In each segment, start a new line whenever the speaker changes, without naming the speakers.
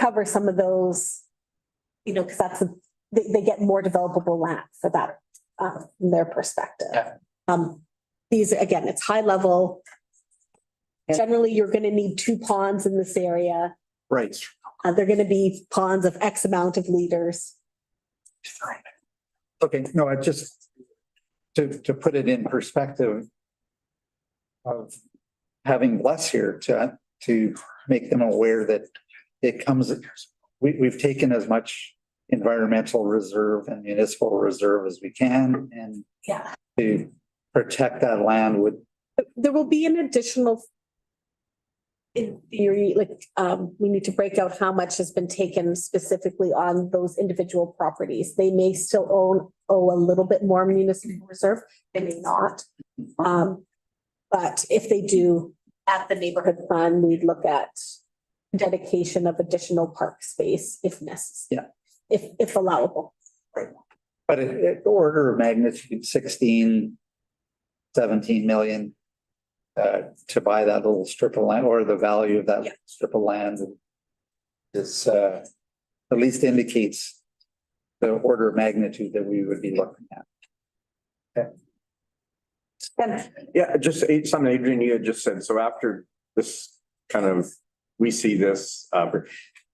cover some of those, you know, because that's, they, they get more developable land for that, um, from their perspective.
Yeah.
Um, these, again, it's high level.
Yeah.
Generally, you're gonna need two ponds in this area.
Right.
Uh, they're gonna be ponds of X amount of liters.
Okay, no, I just, to, to put it in perspective of having Bless here to, to make them aware that it comes, we, we've taken as much environmental reserve and municipal reserve as we can and
Yeah.
to protect that land would,
There will be an additional in theory, like, um, we need to break out how much has been taken specifically on those individual properties. They may still own, owe a little bit more municipal reserve, they may not. Um, but if they do, at the neighborhood fund, we'd look at dedication of additional park space if necessary.
Yeah.
If, if allowable.
but it, it order of magnitude 16, 17 million uh, to buy that little strip of land or the value of that
Yeah.
strip of land is, uh, at least indicates the order of magnitude that we would be looking at.
Then,
Yeah, just eh, something Adrian, you had just said, so after this kind of, we see this, uh,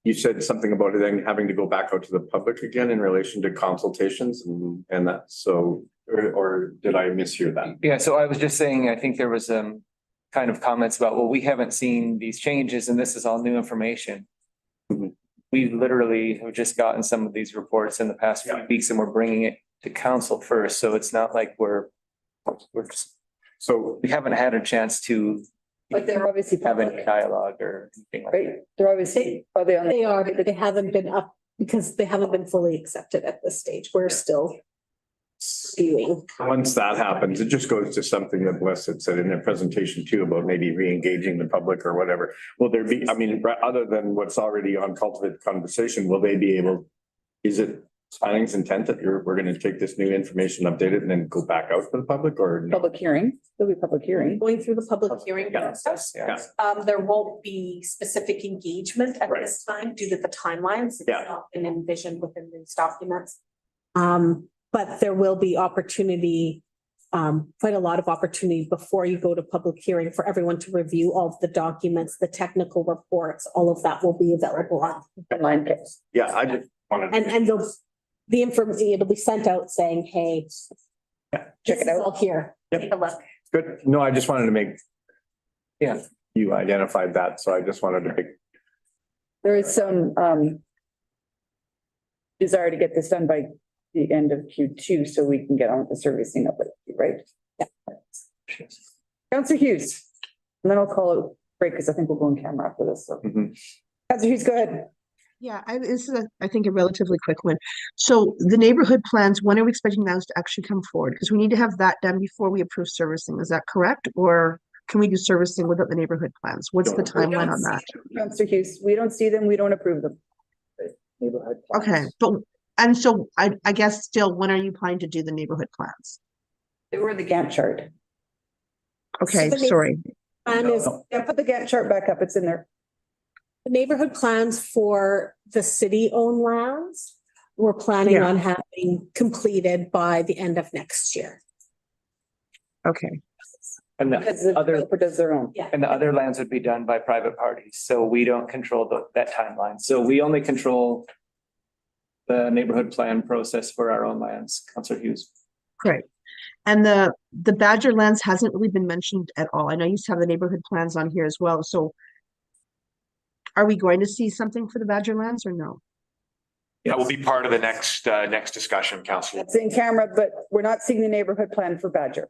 you said something about it then having to go back out to the public again in relation to consultations and, and that, so, or, or did I mishear that?
Yeah, so I was just saying, I think there was um kind of comments about, well, we haven't seen these changes and this is all new information. Mm-hmm.
Mhm.
We literally have just gotten some of these reports in the past few
Yeah.
weeks and we're bringing it to council first, so it's not like we're we're just,
So,
we haven't had a chance to
But they're obviously
have any
public,
dialogue or anything like
right?
that.
They're obviously, are they on? the-
They are, but they haven't been up because they haven't been fully accepted at this stage. We're still skewing.
once that happens, it just goes to something that Wes had said in their presentation too, about maybe re-engaging the public or whatever. Will there be, I mean, ra- other than what's already on cultivate conversation, will they be able, is it planning's intent that you're, we're gonna take this new information, update it, and then go back out to the public or no?
Public hearing, there'll be public hearing.
Going through the public hearing
Yeah.
process.
Yeah.
Um, there won't be specific engagement at this time due to the timelines. It's
Yeah.
not been envisioned within these documents. Um, but there will be opportunity, um, quite a lot of opportunity before you go to public hearing for everyone to review all of the documents, the technical reports, all of that will be available on
Online case.
Yeah, I just wanted.
And, and they'll, the information, it'll be sent out saying, hey.
Check it
this is
out.
All here.
Yep.
Take a look.
Good. No, I just wanted to make.
Yeah.
You identified that, so I just wanted to make.
There is some, um, desire to get this done by the end of Q two, so we can get on with the servicing of it, right? Counselor Hughes, and then I'll call it break, because I think we'll go on camera after this, so.
Mhm.
Counselor Hughes, go ahead.
Yeah, I, this is, a, I think, a relatively quick one. So the neighborhood plans, when are we expecting those to actually come forward? Because we need to have that done before we approve servicing. Is that correct? Or can we do servicing without the neighborhood plans? What's the
We don't
timeline on that?
see them, Counselor Hughes, we don't see them, we don't approve them.
Neighborhood.
Okay, but, and so I, I guess still, when are you planning to do the neighborhood plans?
They were in the Gantt chart.
Okay,
the neigh-
sorry.
Plan Um, is,
Yeah, put the Gantt chart back up, it's in there.
the neighborhood plans for the city-owned lands, we're planning
Yeah.
on having completed by the end of next year.
Okay,
And the
Because the
Other-
developer does their own.
Yeah.
And the other lands would be done by private parties, so we don't control the, that timeline, so we only control. The neighborhood plan process for our own lands, Counselor Hughes.
great. And the, the Badger lands hasn't really been mentioned at all. I know you used to have the neighborhood plans on here as well, so are we going to see something for the Badger lands or no?
That will be part of the next, uh, next discussion, Council.
It's in camera, but we're not seeing the neighborhood plan for Badger.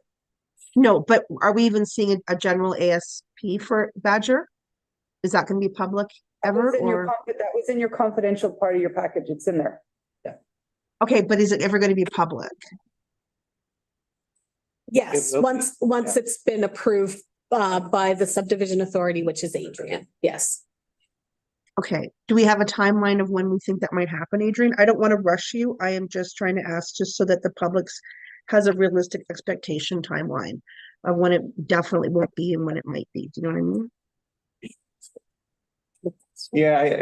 No, but are we even seeing a, a general ASP for Badger? Is that gonna be public ever
was in your
or,
confi- That was in your confidential part of your package. It's in there.
okay, but is it ever gonna be public?
Yes,
It will be,
once, once it's been approved uh by the subdivision authority, which is Adrian, yes.
Okay, do we have a timeline of when we think that might happen, Adrian? I don't wanna rush you. I am just trying to ask just so that the public's has a realistic expectation timeline of when it definitely won't be and when it might be. Do you know what I mean?
Yeah,